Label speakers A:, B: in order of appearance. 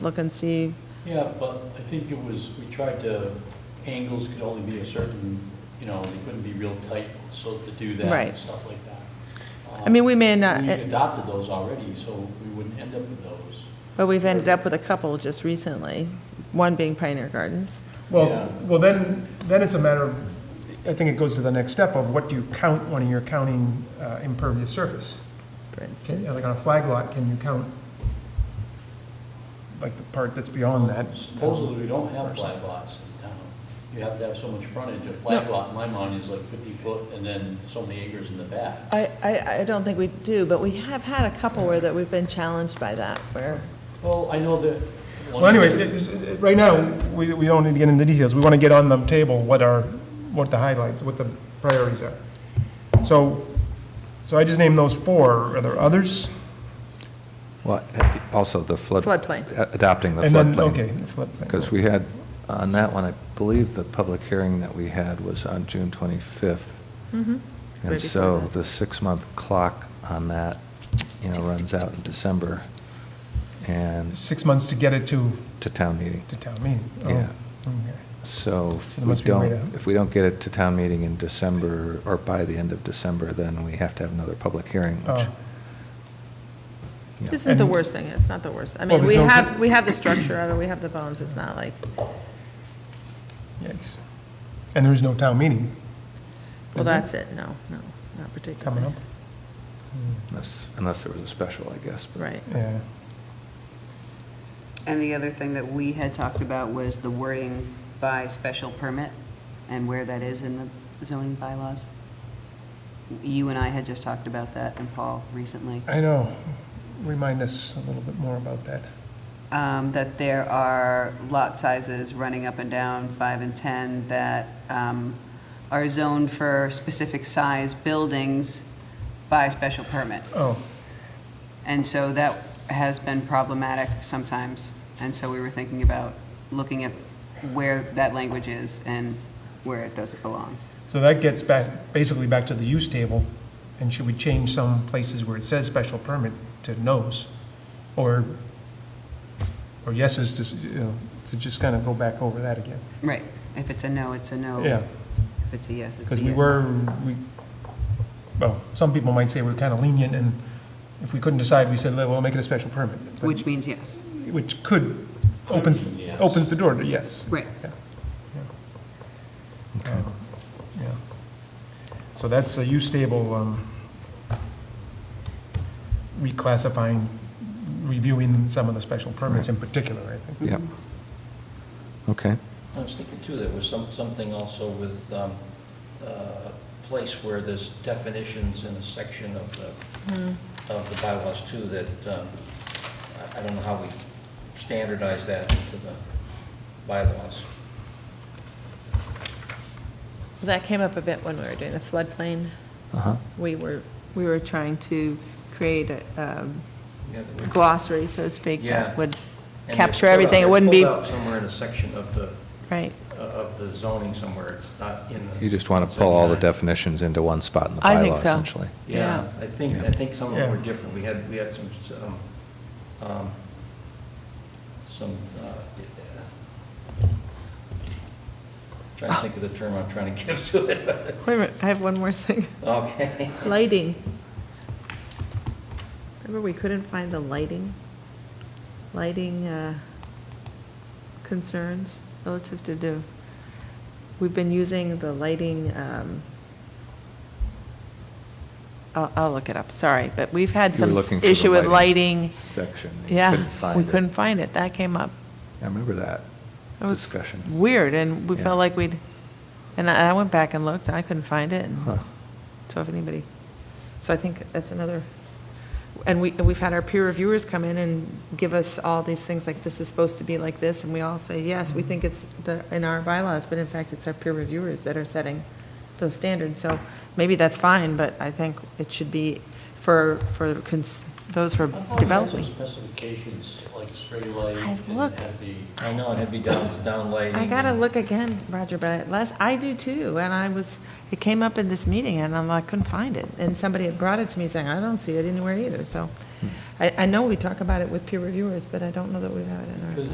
A: look and see,
B: Yeah, but I think it was, we tried to, angles could only be a certain, you know, they couldn't be real tight, so to do that
A: Right.
B: and stuff like that.
A: I mean, we may not- uh,
B: We've adopted those already, so we wouldn't end up with those.
A: but we've ended up with a couple just recently, one being Pioneer Gardens.
B: Yeah.
C: Well, well, then, then it's a matter of, I think it goes to the next step of what do you count when you're counting uh, impervious surface?
A: for
C: Can- Like uh,
A: instance.
C: on a flag lot, can you count, like, the part that's beyond that?
B: Supposedly, we don't have flag lots in town. You have to have so much frontage. A flag lot, in my mind, is like 50 foot and then so many acres in the back.
A: I, I, I don't think we do, but we have had a couple where that we've been challenged by that, where,
B: Well, I know that.
C: Well, anyway, it- it's- right now, we, we don't need to get into details, we want to get on the table what are, what the highlights, what the priorities are. So, so I just named those four, are there others?
D: Well, also the flood.
A: Floodplain.
D: Adopting the
C: And then,
D: floodplain.
C: okay, floodplain.
D: Because we had, on that one, I believe the public hearing that we had was on June 25th.
A: Right
D: And so
A: Mm-hmm. before that.
D: the six-month clock on that, you know, runs out in December and
C: Six months to get it to,
D: to town meeting.
C: to town meeting. Oh,
D: Yeah.
C: okay.
D: So
C: So
D: if
C: there
D: we
C: must be a way
D: don't,
C: to-
D: if we don't get it to town meeting in December or by the end of December, then we have to have another public hearing, which,
C: Oh.
D: you know,
A: this isn't the
C: And-
A: worst thing, it's not the worst. I
C: Well,
A: mean, we
C: there's no-
A: have, we have the structure of it, we have the bones, it's not like,
C: Yikes. And there is no town meeting
A: well,
C: Is there?
A: that's it, no, no, not
C: coming
A: particularly.
C: up.
D: unless, unless there was a special, I guess. but-
A: Right.
C: Mm. Yeah.
E: And the other thing that we had talked about was the wording by special permit and where that is in the zoning bylaws. You and I had just talked about that, and Paul recently,
C: I know. Remind us a little bit more about that.
E: um, that there are lot sizes running up and down, five and 10, that um, are zoned for specific size buildings by special permit.
C: Oh,
E: And so that has been problematic sometimes. And so we were thinking about looking at where that language is and where it doesn't belong.
C: so that gets back, basically back to the use table. And should we change some places where it says special permit to no's? Or, or yeses to, s- you know, to just kind of go back over that again?
E: Right. If it's a no, Oh, it's a no.
C: Yeah,
E: If it's a yes, it's a yes.
C: because we were, we, well, some people might say we're kind of lenient and if we couldn't decide, we said, well, we'll make it a special permit. But-
E: Which means yes.
C: which could, opens,
B: mean yes.
C: opens the door to yes.
E: Right.
C: Yeah. Yeah. Um, Yeah. So that's a use table, um, reclassifying, reviewing some of the special permits in particular, I think.
D: Yep.
A: Mm-hmm.
D: Okay.
F: I was thinking too, there was some, something also with um, uh, a place where there's definitions in a section of
A: Hmm.
F: the, of the bylaws too, that, um, I- I don't know how we standardize that into the bylaws.
A: That came up a bit when we were doing the floodplain.
D: Uh-huh.
A: We were, we were trying to create a um,
F: Yeah, that we-
A: glossary, so to speak,
F: Yeah.
A: that would
F: and
A: capture
F: they're pulled out-
A: everything. It
F: they're
A: wouldn't be,
F: Pulled out somewhere in a section of the,
A: right.
F: of the zoning somewhere, it's not in the.
D: You just want to pull all the
F: definitions.
D: definitions into one spot in the
A: I think
D: bylaw,
A: so.
D: essentially.
F: Yeah, I think, I think some of them were
C: Yeah.
F: different. We had, we had some, um, um, some, uh, trying to think of the term I'm trying to give to it.
A: Wait a minute, I have one more thing.
F: Okay.
A: Lighting. Remember, we couldn't find the lighting? Lighting uh, concerns relative to the, we've been using the lighting, um, I'll, I'll look it up, sorry, but we've had
D: You were
A: some
D: looking for the
A: issue with
D: lighting
A: lighting.
D: Section. You
A: Yeah,
D: couldn't find
A: we
D: it.
A: couldn't find it, that came up.
D: I remember that
A: It was
D: discussion.
A: Weird, and we
D: Yeah.
A: felt like we'd, and I I went back and looked, I couldn't find it, and
D: Huh.
A: so if anybody, so I think that's another, and we, and we've had our peer reviewers come in and give us all these things, like, this is supposed to be like this, and we all say, yes,
D: Mm-hmm.
A: we think it's the, in our bylaws, but in fact, it's our peer reviewers that are setting those standards, so maybe that's fine, but I think it should be for, for cons- those who
B: I
A: are
B: thought we had some
A: developing.
B: specifications, like straight light and
A: I've looked.
B: had the
F: I know, it had to be down, down lighting.
A: I gotta
F: and-
A: look again, Roger, but last, I do too, and I was, it came up in this meeting, and I'm like, couldn't find it, and somebody had brought it to me saying, I don't see it anywhere either, so I, I know we talk about it with peer reviewers, but I don't know that we've had it in our.
B: Because